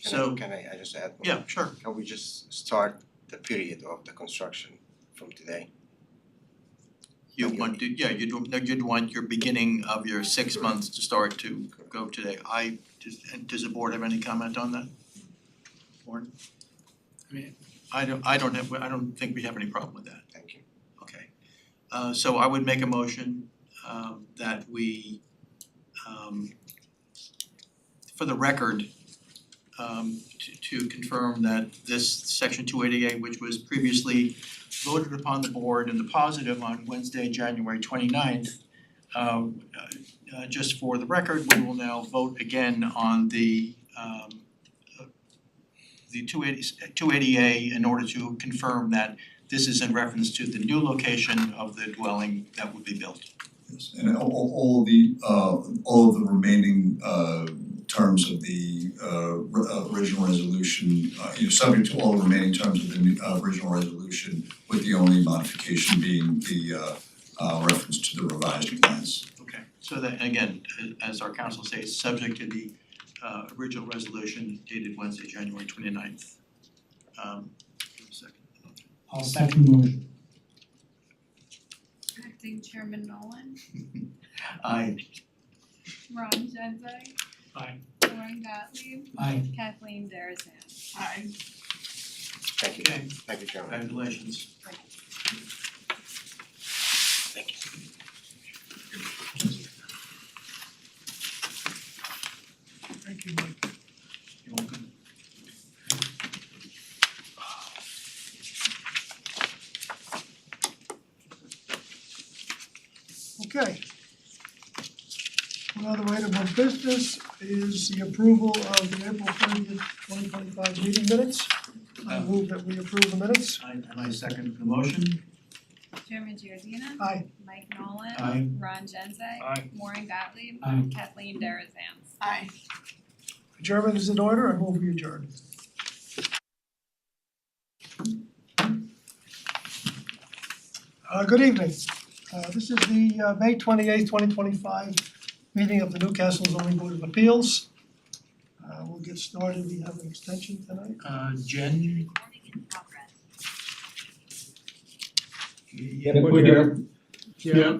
So- Can I, can I, I just add? one? Yeah, sure. Can we just start the period of the construction from today? You Okay. want to, yeah, you'd no, you'd want your beginning of your six months to start to go today. I, does and does the board have any comment on that? Lauren? I mean, I don't I don't have, I don't think we have any problem with that. Thank you. Okay, uh so I would make a motion um that we um for the record um to to confirm that this section two eighty-eight, which was previously voted upon the board in the positive on Wednesday, January 29th, um uh uh, just for the record, we will now vote again on the um uh, the 280 280A in order to confirm that this is in reference to the new location of the dwelling that would be built. Yes, and all all all the uh all of the remaining uh terms of the uh ri- uh, original resolution, uh you know, subject to all the remaining terms of the new- uh, original resolution, with the only modification being the uh uh reference to the revised plans. Okay. So that, again, as our council says, subject to the uh original resolution dated Wednesday, January twenty ninth. Um, give me a second. I'll second the motion. Acting Chairman Nolan, Aye. Ron Genzeg. Aye. Warren Gottlieb, Aye. Kathleen Darazan. Aye. Thank you, Okay, thank you, Chairman. congratulations. Thank you, Mike. You're welcome. Okay. One other item of business is the approval of the April thirtieth, twenty twenty-five meeting minutes. I move that we approve the minutes. I and I second the motion. Chairman Giordina. Aye. Mike Nolan. Aye. Ron Genzeg. Aye. Warren Gottlieb. Aye. Kathleen Darazan. Aye. Adjournment is in order. I move we adjourn. Uh, good evening. Uh, this is the, uh, May twenty-eighth, twenty twenty-five meeting of the Newcastle zoning board of appeals. Uh, we'll get started. We have an extension tonight. Uh Jen? Yeah, we're here. Yeah.